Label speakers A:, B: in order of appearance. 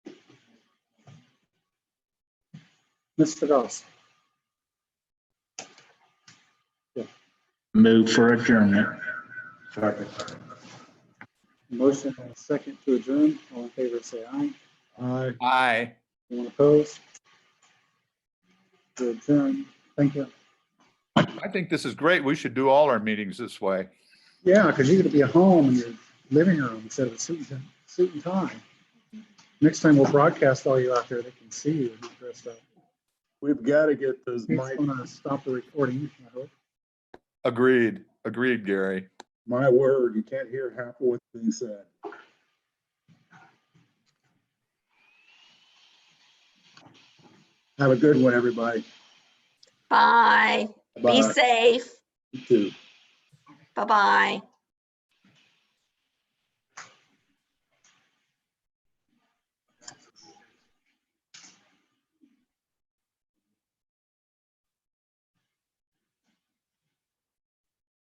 A: Mr. Ross.
B: Move for adjournment.
C: Second.
A: Motion and a second to adjourn. All in favor, say aye.
C: Aye.
D: Aye.
A: Anyone opposed? To adjourn. Thank you.
D: I think this is great. We should do all our meetings this way.
A: Yeah, because you're going to be at home in your living room instead of a suit and, suit and tie. Next time we'll broadcast all you out there. They can see you not dressed up.
C: We've got to get those
A: Mike's
C: mic,
A: going to stop the recording, I hope.
D: Agreed. Agreed, Gary.
C: my word, you can't hear half of what's being said. Have a good one, everybody.
E: Bye. Be
C: Bye.
E: safe.
C: You too.
E: Bye-bye.